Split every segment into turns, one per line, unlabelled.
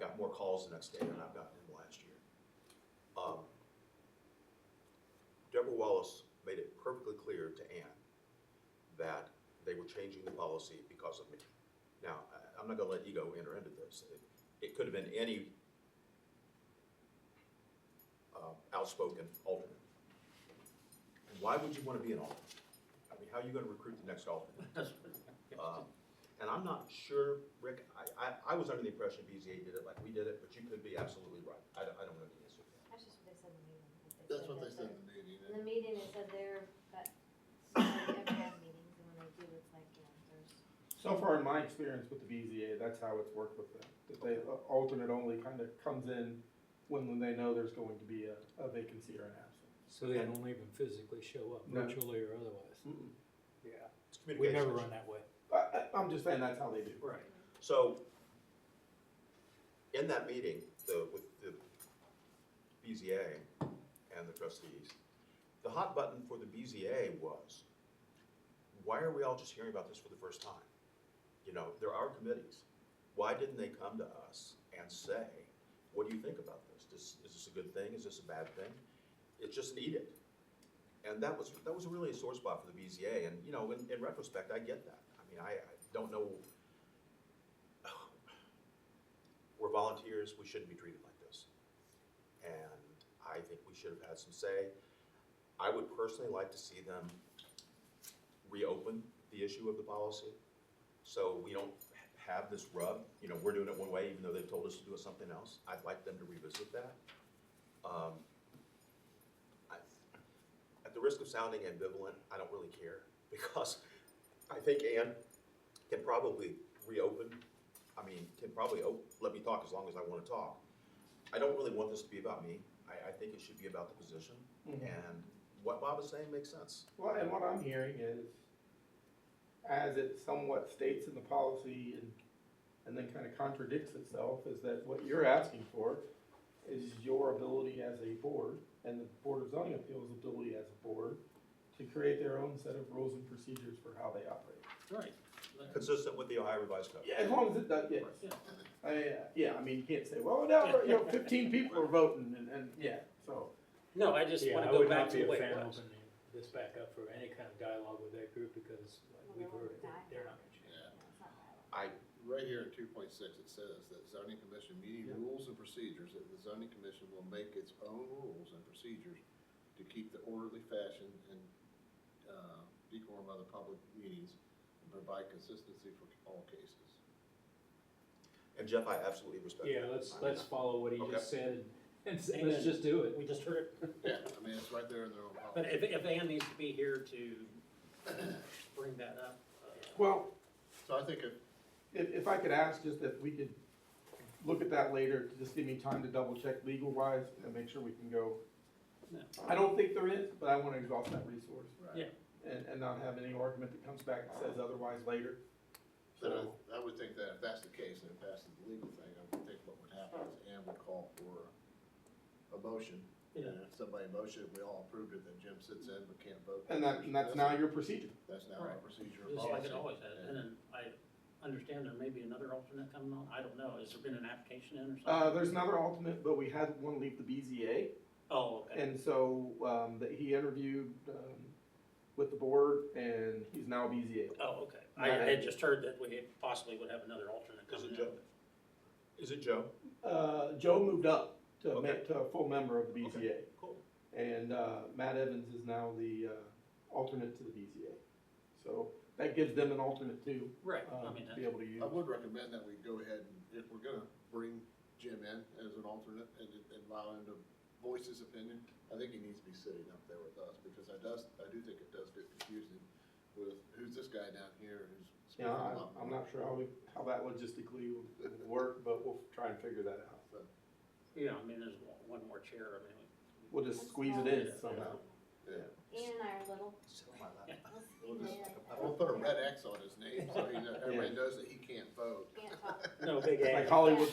got more calls the next day than I've gotten in the last year. Um, Deborah Wallace made it perfectly clear to Ann that they were changing the policy because of me. Now, I- I'm not gonna let ego enter into this. It- It could have been any uh, outspoken alternate. And Why would you wanna be an alternate? I mean, how are you gonna recruit the next alternate? Um, And I'm not sure, Rick, I, I, I was under the impression BZA did it like we did it, but you could be absolutely right. I don't, I don't know the answer to
That's just what they said in the meeting. that
That's what they
that's
said
it.
in the meeting.
In the meeting, they said they're, but, so they have to have meetings, and when they do, it's like, you know, there's,
So far in my experience with the BZA, that's how it's worked with them. That they, uh, alternate only kind of comes in when they know there's going to be a, a vacancy or an absence.
So they don't even physically show up,
No.
virtually or otherwise. Yeah.
It's
We
communication.
never run that way.
I, I, I'm just saying that's how they do. it.
Right.
So, in that meeting, the, with the BZA and the trustees, the hot button for the BZA was, why are we all just hearing about this for the first time? You know, there are committees. Why didn't they come to us and say, what do you think about this? This, is this a good thing? Is this a bad thing? It's just needed. And that was, that was really a sore spot for the BZA, and, you know, in, in retrospect, I get that. I mean, I, I don't know we're volunteers, we shouldn't be treated like this. And I think we should have had some say. I would personally like to see them reopen the issue of the policy. So we don't ha- have this rub, you know, we're doing it one way even though they've told us to do it something else. I'd like them to revisit that. Um, I- At the risk of sounding ambivalent, I don't really care because I think Ann can probably reopen I mean, can probably oh, let me talk as long as I want to talk. I don't really want this to be about me. I, I think it should be about the position. And what Bob is saying makes sense.
Well, and what I'm hearing is, as it somewhat states in the policy and, and then kind of contradicts itself, is that what you're asking for is your ability as a board and the Board of Zoning Appeals' ability as a board to create their own set of rules and procedures for how they operate.
Right.
Consistent with the Ohio Revised Code.
Yeah, as long as it does, yes. I mean, uh, yeah, I mean, you can't say, well, now, you know, fifteen people are voting and, and, yeah, so.
No, I just
Yeah,
wanna
I
go
would
back
not
to the
be a
way it
fan
was.
opening this back up for any kind of dialogue with that group because like, we've
Well, they
heard
won't
it.
die.
they're not gonna change.
you
Yeah,
know, it's not that.
I,
right here in two point six, it says that zoning commission meeting
Yeah.
rules and procedures, that the zoning commission will make its own rules and procedures to keep the orderly fashion and, uh, decorum of the public meetings and provide consistency for all cases.
and Jeff, I absolutely respect that.
Yeah, let's, let's follow what he
Okay.
just said and- and say,
Amen.
let's just do it.
We just heard it,
Yeah, I mean, it's right there in their own
but
policy.
if, if Ann needs to be here to bring that up, uh,
Well,
So I think if,
if, if I could ask just if we could look at that later, to just give me time to double check legal wise and make sure we can go.
No.
I don't think there is, but I wanna exhaust that resource
right,
yeah,
and, and not have any argument that comes back and says otherwise later.
so I would think that if that's the case, and if that's the legal thing, I would think what would happen is Ann would call for a motion.
Yeah.
And if somebody motioned, we all approved it, then Jim sits in but can't vote.
And that, and that's now your procedure.
That's now our
Right.
procedure. and
just like it
policy.
always has, and then I understand there may be another alternate coming on, I don't know, has there been an application in or something?
Uh, there's another alternate, but we had one leave the BZA.
Oh, okay,
And so, um, that he interviewed, um, with the board and he's now BZA.
oh, okay, I I had just heard that we possibly would have another alternate
Is
coming
it
in.
Joe? Is it Joe?
Uh, Joe moved up to a, ma-
Okay.
to a full member of the BZA.
Okay, Cool.
And, uh, Matt Evans is now the, uh, alternate to the BZA. So that gives them an alternate too,
Right, I
um,
mean,
to
that-
be able to use.
I would recommend that we go ahead and, if we're gonna bring Jim in as an alternate and, and allow him to voice his opinion, I think he needs to be sitting up there with us, because I does, I do think it does get confusing with who's this guy down here who's speaking
Yeah,
up.
I, I'm not sure how we, how that logistically will will work, but we'll try and figure that out.
So,
yeah, I mean, there's one- one more chair, I mean,
We'll just squeeze it in somehow.
yeah.
Ian and I are little,
Sit on my lap.
we'll see
We'll just-
later.
We'll put a red X on his name, so he, knows- everybody
Yeah.
knows that he can't vote.
Can't talk.
no, big
Like
A,
Hollywood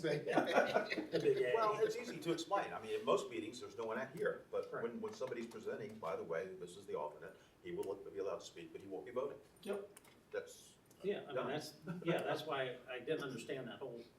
big A.
Well, it's easy to explain. I mean, in most meetings, there's no one out here. But
Right.
when, when somebody's presenting, by the way, this is the alternate, he will be allowed to speak, but he won't be voting.
Yep.
That's,
Yeah, I mean,
Done.
that's, yeah, that's why I didn't understand that whole